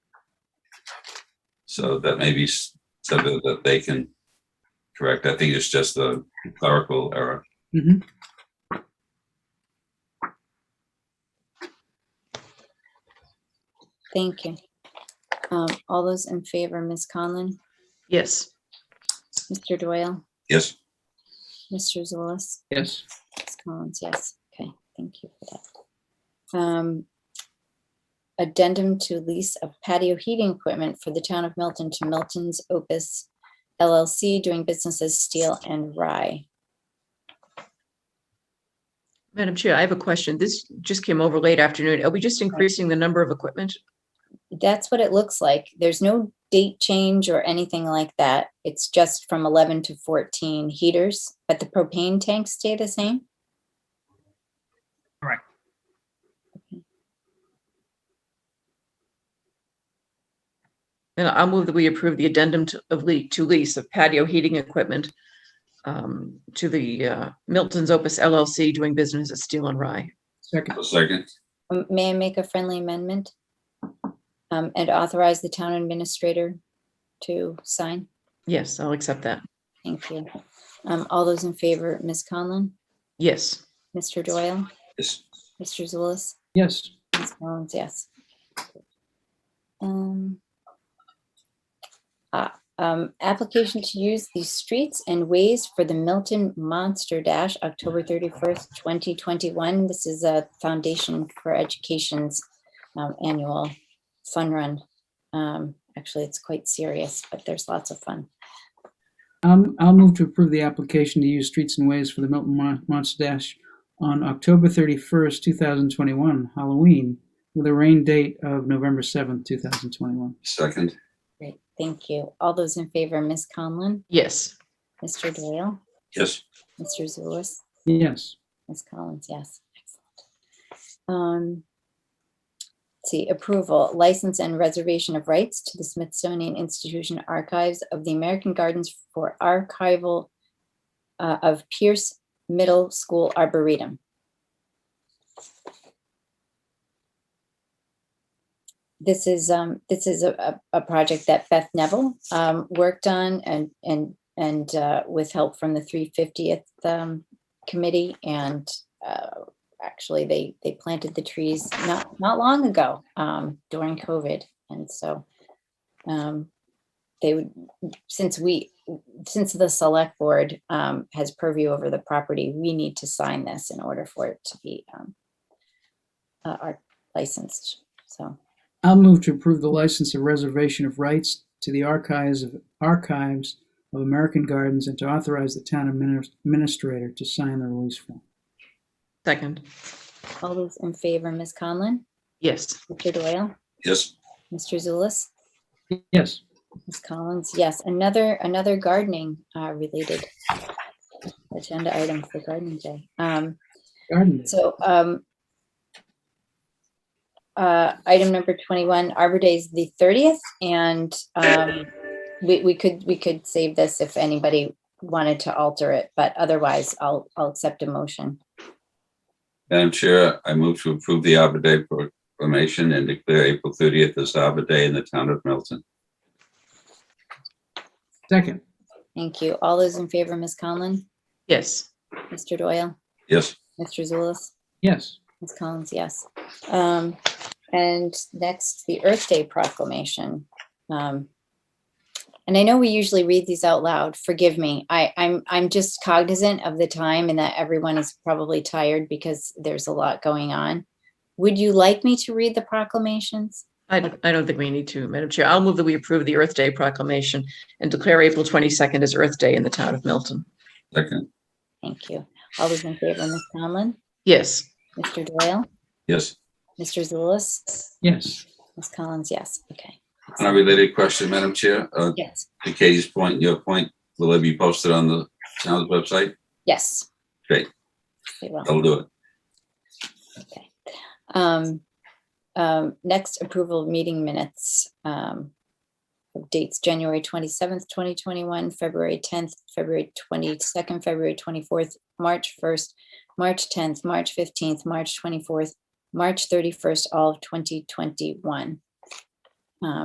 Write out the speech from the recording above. So that may be s- something that they can correct. I think it's just a clerical error. Mhm. Thank you. Um, All those in favor, Ms. Conlon, Yes. Mr. Doyle, Yes, Mr. Zulus, Yes. Ms. Collins, yes. Okay, thank you for that. Um, Addendum to lease of patio heating equipment for the town of Milton to Milton's Opus LLC doing business as Steel and Rye. Madam Chair, I have a question. This just came over late afternoon. Are we just increasing the number of equipment? That's what it looks like. There's no date change or anything like that. It's just from 11 to 14 heaters, but the propane tanks stay the same? Correct. Okay. And I'll move that we approve the addendum to- of le- to lease of patio heating equipment um, to the uh, Milton's Opus LLC doing business at Steel and Rye. Second. a second. Um, May I make a friendly amendment? Um, And authorize the town administrator to sign? Yes, I'll accept that. Thank you. Um, All those in favor, Ms. Conlon, Yes. Mr. Doyle, Yes, Mr. Zulus, Yes. Ms. Collins, yes. Um, ah, um, Application to use the streets and ways for the Milton Monster Dash, October 31st, 2021. This is a Foundation for Education's um, annual fun run. Um, Actually, it's quite serious, but there's lots of fun. Um, I'll move to approve the application to use streets and ways for the Milton Mon- Monster Dash on October 31st, 2021, Halloween, with a rain date of November 7th, 2021. second. Great, thank you. All those in favor, Ms. Conlon, Yes. Mr. Doyle, Yes, Mr. Zulus, Yes. Ms. Collins, yes. Excellent. Um, let's See, approval, license and reservation of rights to the Smithsonian Institution Archives of the American Gardens for archival uh, of Pierce Middle School Arboretum. This is, um, this is a, a, a project that Beth Neville, um, worked on and, and, and, uh, with help from the three fiftieth, um, committee and uh, actually they they planted the trees not not long ago um, during COVID and so um, they would since we since the select board um, has purview over the property we need to sign this in order for it to be um, uh, art licensed so I'll move to approve the license of reservation of rights to the archives of archives of American Gardens and to authorize the town adminis- administrator to sign the release form. Second. all those in favor Ms. Conlon Yes. Mr. Doyle yes, Mr. Zulus Yes. Ms. Collins, yes, another, another gardening uh, related agenda item for gardening day. Um, Garden. Day. So um, uh, item number 21, Arbor Day is the 30th and um, we, we could, we could save this if anybody wanted to alter it, but otherwise I'll, I'll accept a motion. Madam Chair, I move to approve the Arbor Day proclamation and declare April thirtieth as Arbor Day in the town of Milton. Second. Thank you. All those in favor, Ms. Conlon, Yes. Mr. Doyle, Yes, Mr. Zulus? Yes. Ms. Collins, yes. Um, and next, the Earth Day proclamation. Um, and I know we usually read these out loud. Forgive me. I, I'm I'm just cognizant of the time and that everyone is probably tired because there's a lot going on. Would you like me to read the proclamations? I, I don't think we need to, Madam Chair. I'll move that we approve the Earth Day proclamation and declare April 22nd as Earth Day in the town of Milton. second. Thank you. All those in favor, Ms. Conlon, Yes. Mr. Doyle, Yes. Mr. Zulus, Yes. Ms. Collins, yes. Okay. On a related question, Madam Chair, uh, Yes. to Katie's point, and your point, will it be posted on the town's website? Yes. Great. Oh, They will. I'll do it. Okay. Um, um, Next, approval of meeting minutes. um, of Dates, January 27th, 2021, February 10th, February 22nd, February 24th, March 1st, March 10th, March 15th, March 24th, March 31st, all of 2021. Um,